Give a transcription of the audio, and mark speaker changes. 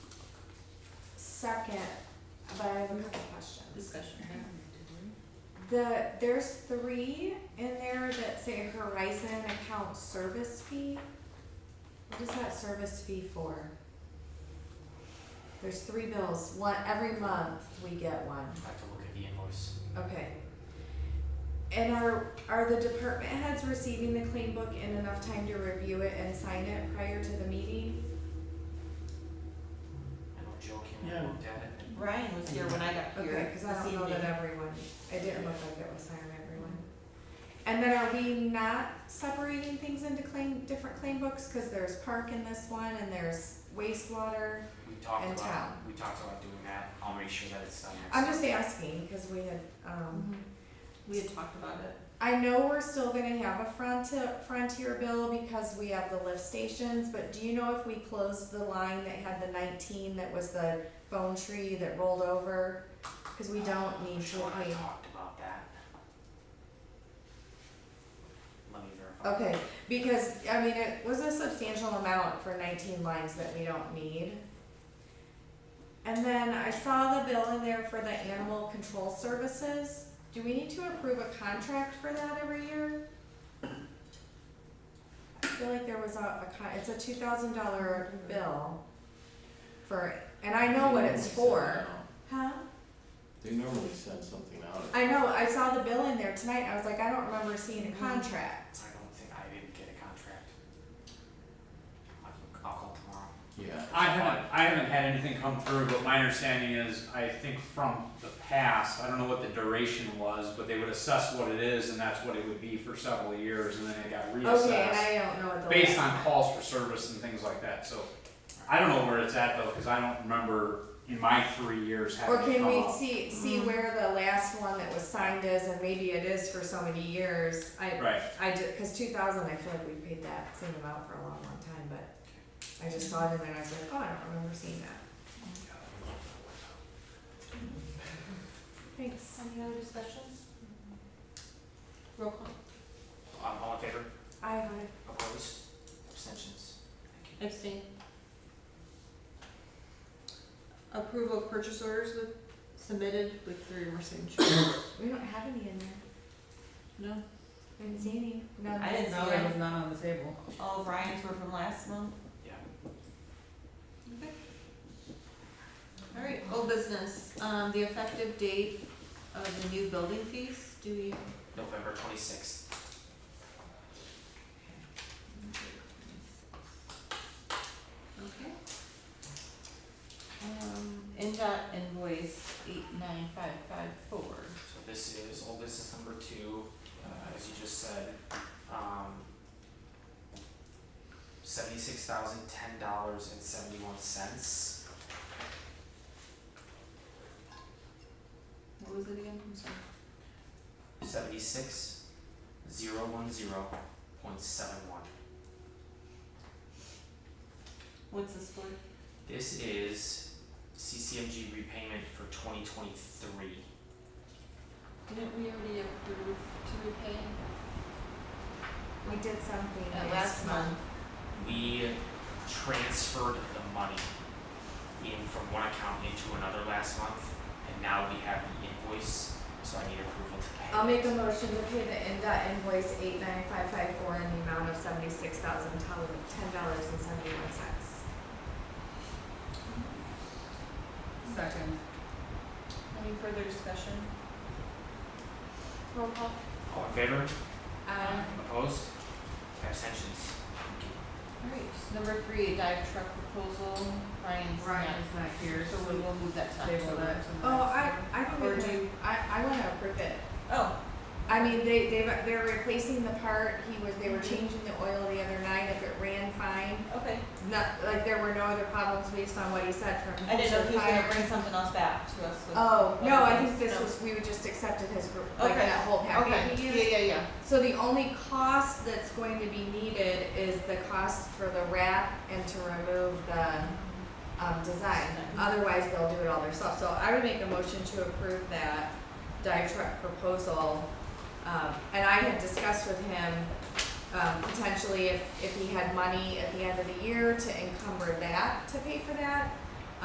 Speaker 1: second, but I have a couple questions.
Speaker 2: Discussion.
Speaker 1: The, there's three in there that say Horizon account service fee. What is that service fee for? There's three bills, one, every month we get one,
Speaker 3: I have to look at the invoice.
Speaker 1: okay. And are, are the department heads receiving the clean book in enough time to review it and sign it prior to the meeting?
Speaker 3: I know Joe came
Speaker 4: Yeah.
Speaker 3: and looked at it.
Speaker 2: Brian was here when I got
Speaker 1: Okay,
Speaker 2: here
Speaker 1: cause I
Speaker 2: this
Speaker 1: don't know that
Speaker 2: evening.
Speaker 1: everyone, it didn't look like it was signed by everyone. And then are we not separating things into claim, different claim books, cause there's park in this one and there's wastewater?
Speaker 3: We talked
Speaker 1: And
Speaker 3: about,
Speaker 1: town.
Speaker 3: we talked about doing that. I'll make sure that it's done next
Speaker 1: I'm
Speaker 3: time.
Speaker 1: just asking, cause we had, um,
Speaker 2: Mhm. We had talked about it.
Speaker 1: I know we're still gonna have a frontier, frontier bill because we have the lift stations, but do you know if we closed the line that had the nineteen that was the phone tree that rolled over? Cause we don't need to
Speaker 3: Joe and I
Speaker 1: pay.
Speaker 3: talked about that. Let me verify.
Speaker 1: Okay, because, I mean, it was a substantial amount for nineteen lines that we don't need. And then I saw the bill in there for the animal control services. Do we need to approve a contract for that every year? I feel like there was a, a con, it's a two thousand dollar bill for, and I know what it's for, huh?
Speaker 4: They normally send something out.
Speaker 1: I know, I saw the bill in there tonight, I was like, I don't remember seeing a contract.
Speaker 3: I don't think, I didn't get a contract. I can- I'll call tomorrow.
Speaker 4: Yeah.
Speaker 5: I haven't, I haven't had anything come through, but my understanding is, I think from the past, I don't know what the duration was, but they would assess what it is, and that's what it would be for several years, and then it got
Speaker 1: Okay, Oh, and
Speaker 5: reassessed.
Speaker 1: I don't know what the.
Speaker 5: Based
Speaker 1: last-
Speaker 5: on calls for service and things like that, so, I don't know where it's at though, cause I don't remember in my three years having
Speaker 1: Or
Speaker 5: it
Speaker 1: can
Speaker 5: come
Speaker 1: we
Speaker 5: up.
Speaker 1: see, see where the last one that was signed is, and maybe it is for so many years, I,
Speaker 5: Right,
Speaker 1: I did, cause two thousand, I feel like we paid that same amount for a long, long time, but I just saw it in there and I was like, oh, I don't remember seeing that, thanks.
Speaker 2: Any other discussions? Roll call.
Speaker 3: Um, all in favor?
Speaker 1: I have
Speaker 3: Opposed? Abstentions? Thank you.
Speaker 2: Abstain. Approval of purchase orders with, submitted with three or more signatures.
Speaker 1: we don't have any in there,
Speaker 2: No?
Speaker 1: we didn't see any, no.
Speaker 2: I didn't
Speaker 6: No,
Speaker 2: see
Speaker 6: there
Speaker 2: them.
Speaker 6: was none on the table.
Speaker 2: All of Ryan's were from last month?
Speaker 3: Yeah.
Speaker 2: Okay. All right, old business, um, the effective date of the new building fees, do we?
Speaker 3: November twenty-sixth.
Speaker 2: Okay. Um, NDOT invoice eight nine five five four.
Speaker 3: So this is old business number two, uh, as you just said, um, seventy-six thousand ten dollars and seventy-one cents.
Speaker 2: What was it again? I'm sorry.
Speaker 3: Seventy-six, zero one zero point seven one.
Speaker 2: What's this for?
Speaker 3: This is CCMG repayment for twenty twenty-three.
Speaker 2: Didn't we already approve to repay?
Speaker 1: We did something
Speaker 2: At
Speaker 1: last month,
Speaker 3: we transferred the money in from one account into another last month, and now we have the invoice, so I need approval to pay.
Speaker 1: I'll make a
Speaker 3: it.
Speaker 1: motion to pay the NDOT invoice eight nine five five four in the amount of seventy-six thousand, ten dollars and seventy-one cents.
Speaker 6: Second.
Speaker 2: Any further discussion? Roll call.
Speaker 3: All in favor?
Speaker 1: Um,
Speaker 3: Opposed? Abstentions? Thank you.
Speaker 2: Alright, number three, dive truck proposal, Ryan's not,
Speaker 6: Ryan's not here,
Speaker 2: so we
Speaker 6: so
Speaker 2: will move that to
Speaker 6: we table
Speaker 2: October.
Speaker 6: that to the
Speaker 1: oh, I,
Speaker 6: next
Speaker 1: I don't
Speaker 2: Or
Speaker 1: even-
Speaker 2: do you-
Speaker 1: I, I wanna approve it.
Speaker 2: Oh,
Speaker 1: I mean, they, they, they're replacing the part, he was, they were changing the oil the other night, if it ran fine.
Speaker 2: okay,
Speaker 1: Not, like, there were no other problems based on what he said from.
Speaker 2: I didn't know if he was gonna
Speaker 1: fire.
Speaker 2: bring something else back to us with.
Speaker 1: Oh, no, I
Speaker 2: other
Speaker 1: think
Speaker 2: things.
Speaker 1: this
Speaker 2: No.
Speaker 1: was, we would just accepted his, like,
Speaker 2: Okay.
Speaker 1: that whole packet he used.
Speaker 2: Okay, yeah, yeah, yeah.
Speaker 1: So the only cost that's going to be needed is the cost for the wrap and to remove the, um, design. Otherwise, they'll do it all themselves. So I would make a motion to approve that dive truck proposal. Um, and I had discussed with him, um, potentially if, if he had money at the end of the year to encumber that, to pay for that.